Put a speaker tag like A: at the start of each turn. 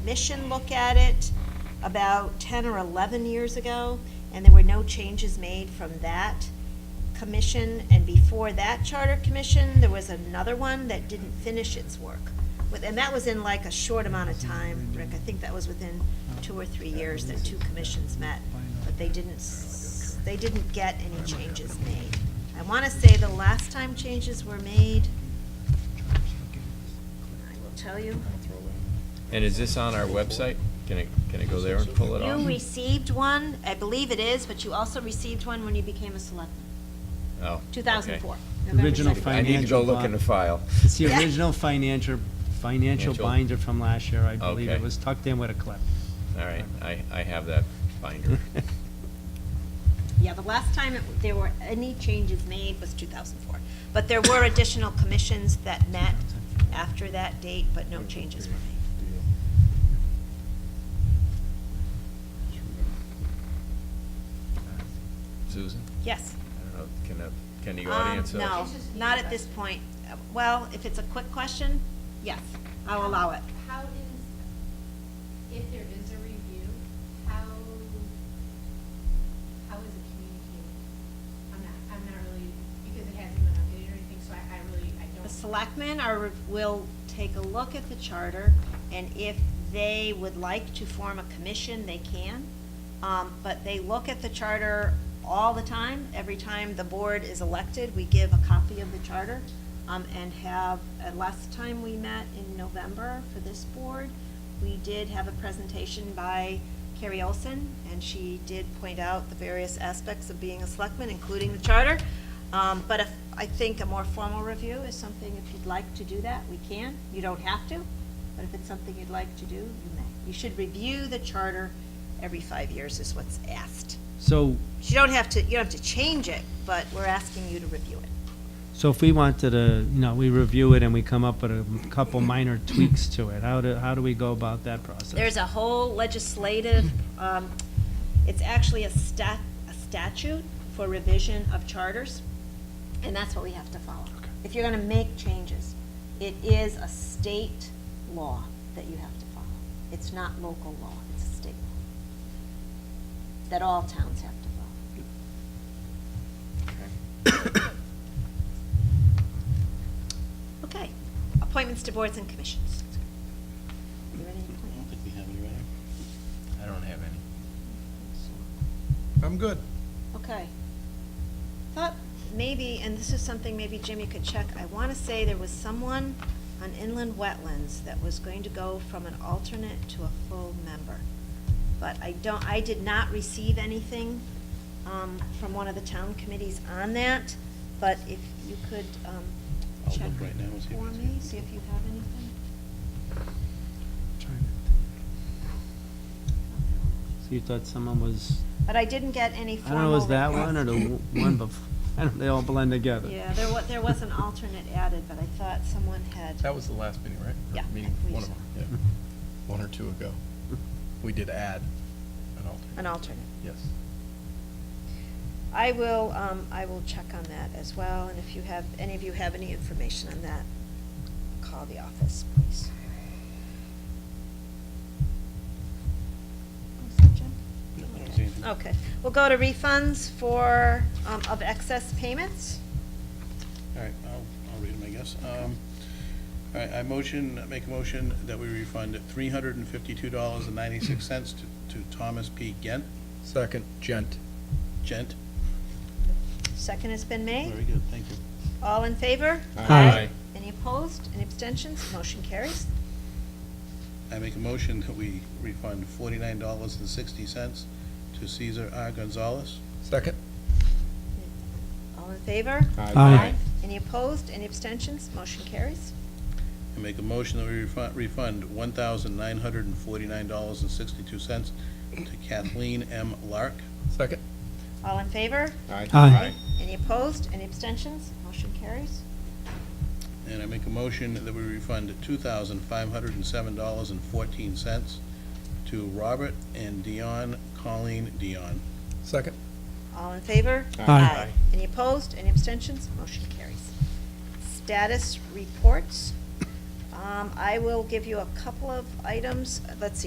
A: commission look at it about ten or eleven years ago, and there were no changes made from that commission. And before that charter commission, there was another one that didn't finish its work. With- And that was in like a short amount of time, Rick. I think that was within two or three years that two commissions met. But they didn't, s- they didn't get any changes made. I want to say the last time changes were made, I will tell you.
B: And is this on our website? Can I, can I go there and pull it off?
A: You received one, I believe it is, but you also received one when you became a selectman,
B: Oh, okay.
A: 2004. November
C: Original
A: 2nd.
B: I need to go look in the file.
C: It's the
A: Yeah.
C: original financial, financial
B: Financial.
C: binder from last year, I believe. It
B: Okay.
C: was tucked in with a clip.
B: All right, I, I have that binder.
A: Yeah, the last time it- there were any changes made was 2004. But there were additional commissions that met after that date, but no changes were made.
B: Susan?
A: Yes?
B: I don't know, can, uh, can the
A: Um,
B: audience? uh,
A: No, not at this point. Uh, Well, if it's a quick question, yes, I'll allow it.
D: How is, if there is a review, how, how is it communicated? I'm not, I'm not really, because it hasn't been updated or anything, so I, I really, I don't.
A: The selectmen are, will take a look at the charter, and if they would like to form a commission, they can. Um, But they look at the charter all the time. Every time the board is elected, we give a copy of the charter um, and have, uh, last time we met in November for this board, we did have a presentation by Carrie Olson, and she did point out the various aspects of being a selectman, including the charter. Um, But if, I think a more formal review is something, if you'd like to do that, we can. You don't have to, but if it's something you'd like to do, you may. You should review the charter every five years is what's asked.
C: So,
A: You don't have to, you don't have to change it, but we're asking you to review it.
C: so if we wanted to, you know, we review it and we come up with a couple minor tweaks to it, how do, how do we go about that process?
A: There's a whole legislative, um, it's actually a stat, a statute for revision of charters, and that's what we have to follow.
C: Okay.
A: If you're gonna make changes, it is a state law that you have to follow. It's not local law, it's a state law that all towns have to follow. Okay, appointments to boards and commissions. You ready to appoint?
E: we have any right
B: I don't have any.
F: I'm good.
A: Okay. Thought maybe, and this is something maybe Jimmy could check, I want to say there was someone on inland wetlands that was going to go from an alternate to a full member. But I don't, I did not receive anything um, from one of the town committees on that, but if you could um,
E: I'll
A: check
E: look right now and see if
A: for
E: it's-
A: me, see if you have anything.
C: So you thought someone was,
A: But I didn't get any
C: I
A: formal.
C: don't know, was that
A: request.
C: one or the w- one before? I don't, they all blend together.
A: Yeah, there was, there was an alternate added, but I thought someone had.
F: That was the last meeting, right? Or
A: Yeah,
F: Meeting,
A: I believe
F: one of
A: so.
F: them, yeah. One or two ago. We did add an alternate.
A: An alternate.
F: Yes.
A: I will, um, I will check on that as well, and if you have, any of you have any information on that, call the office, please. Was that Jim?
E: No, I
A: Okay.
E: don't see anything.
A: Okay, we'll go to refunds for, um, of excess payments.
E: All right, I'll, I'll read them, I guess. Um, All right, I motion, make a motion that we refund three hundred and fifty-two dollars and ninety-six cents to, to Thomas P. Gent,
F: Second, Gent.
E: Gent.
A: Second has been made,
E: Very good, thank you.
A: all in favor?
B: Aye.
A: Any opposed, any abstentions, motion carries.
E: I make a motion that we refund forty-nine dollars and sixty cents to Cesar R. Gonzalez.
F: Second.
A: All in favor?
C: Aye.
A: Any opposed, any abstentions, motion carries.
E: I make a motion that we refund, refund one thousand nine hundred and forty-nine dollars and sixty-two cents to Kathleen M. Lark.
F: Second.
A: All in favor?
C: Aye.
A: Any opposed? Any abstentions? Motion carries.
E: And I make a motion that we refund two thousand five hundred and seven dollars and fourteen cents to Robert and Dion, Colleen Dion.
F: Second.
A: All in favor?
C: Aye. Aye.
A: Any opposed? Any abstentions? Motion carries. Status reports. Um, Um, I will give you a couple of items. Let's see,